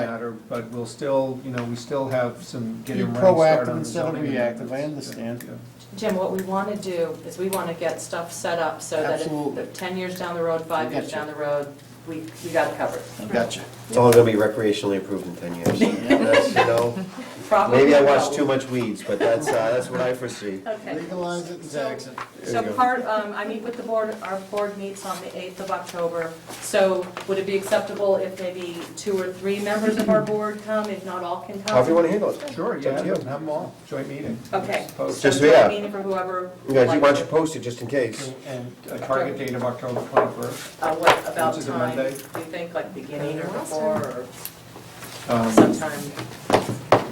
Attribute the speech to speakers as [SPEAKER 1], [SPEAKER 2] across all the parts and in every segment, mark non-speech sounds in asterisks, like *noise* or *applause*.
[SPEAKER 1] that, or, but we'll still, you know, we still have some getting
[SPEAKER 2] Be
[SPEAKER 1] ready start
[SPEAKER 2] proactive
[SPEAKER 1] on the
[SPEAKER 2] instead of
[SPEAKER 1] zoning
[SPEAKER 2] reactive, I
[SPEAKER 1] amendments. Yeah,
[SPEAKER 2] understand.
[SPEAKER 1] yeah.
[SPEAKER 3] Jim, what we want to do is we want to get stuff set up so that if-
[SPEAKER 2] Absolutely.
[SPEAKER 3] if 10 years down the road, five
[SPEAKER 2] I
[SPEAKER 3] years
[SPEAKER 2] gotcha.
[SPEAKER 3] down the road, we, we got it covered.
[SPEAKER 2] I gotcha.
[SPEAKER 4] It's only gonna be recreationally approved in ten years. That's, you know,
[SPEAKER 3] Probably
[SPEAKER 4] maybe I
[SPEAKER 3] no.
[SPEAKER 4] watch too much weeds, but that's, uh, that's what I foresee.
[SPEAKER 3] Okay.
[SPEAKER 2] Legalize it in
[SPEAKER 3] So-
[SPEAKER 2] Jackson.
[SPEAKER 3] So
[SPEAKER 4] There you go.
[SPEAKER 3] part, um, I meet with the board, our board meets on the 8th of October. So would it be acceptable if maybe two or three members of our board come, if not all can come?
[SPEAKER 4] However you wanna handle it.
[SPEAKER 1] Sure,
[SPEAKER 4] It's up
[SPEAKER 1] yeah,
[SPEAKER 4] to you.
[SPEAKER 1] have them all, joint meeting.
[SPEAKER 3] Okay.
[SPEAKER 1] Post.
[SPEAKER 4] Just-
[SPEAKER 3] So
[SPEAKER 4] yeah.
[SPEAKER 3] meeting for whoever.
[SPEAKER 4] You
[SPEAKER 3] would
[SPEAKER 4] guys, why
[SPEAKER 3] like uh,
[SPEAKER 4] don't you
[SPEAKER 3] to-
[SPEAKER 4] post it just in case?
[SPEAKER 1] And a target date of October twenty-first.
[SPEAKER 3] Uh, what, about
[SPEAKER 1] Which is a
[SPEAKER 3] time, do
[SPEAKER 1] Monday.
[SPEAKER 3] you think, like beginning or before, or
[SPEAKER 1] Um,
[SPEAKER 3] sometime?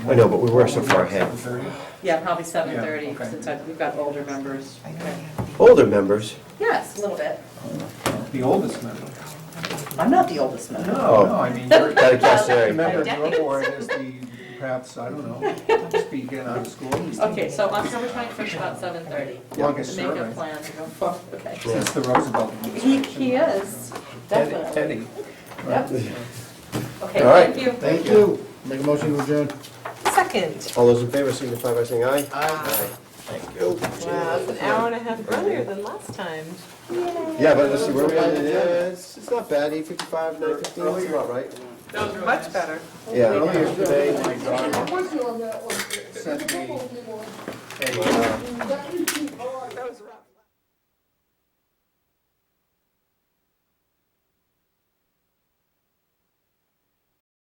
[SPEAKER 4] I know, but we were so far ahead.
[SPEAKER 1] 7:30?
[SPEAKER 3] Yeah, probably 7:30,
[SPEAKER 1] okay.
[SPEAKER 3] since I- we've got older members.
[SPEAKER 4] Older members,
[SPEAKER 3] Yes, a little bit.
[SPEAKER 1] The oldest member.
[SPEAKER 3] I'm not the oldest member.
[SPEAKER 4] Oh.
[SPEAKER 1] No, I mean,
[SPEAKER 4] *laughs*
[SPEAKER 1] you're,
[SPEAKER 4] gotta cast
[SPEAKER 1] a
[SPEAKER 4] area.
[SPEAKER 1] member of your board is the, perhaps, I don't know, speaking out of school.
[SPEAKER 3] Okay, so October 21st, about 7:30.
[SPEAKER 1] Longest
[SPEAKER 3] Make a
[SPEAKER 1] serving.
[SPEAKER 3] plan to go forward, okay.
[SPEAKER 1] Since the Roosevelt.
[SPEAKER 3] He, he is,
[SPEAKER 1] Teddy-
[SPEAKER 3] definitely.
[SPEAKER 1] Teddy.
[SPEAKER 3] Yep. Okay,
[SPEAKER 4] All right.
[SPEAKER 3] thank you.
[SPEAKER 2] Thank you. Make a motion to adjourn.
[SPEAKER 5] Second.
[SPEAKER 4] all those in favor signify by saying aye.
[SPEAKER 2] Aye.
[SPEAKER 4] Thank you.
[SPEAKER 5] Wow, it's an hour and a half earlier than last time.
[SPEAKER 4] Yeah, but let's see, where we at, yeah, it's, it's not bad, eight fifty-five, nine fifteen, that's about right.
[SPEAKER 5] Much better.
[SPEAKER 4] Yeah, earlier today,
[SPEAKER 6] Once you're on that one, it's a couple of people,
[SPEAKER 4] uh,
[SPEAKER 6] that you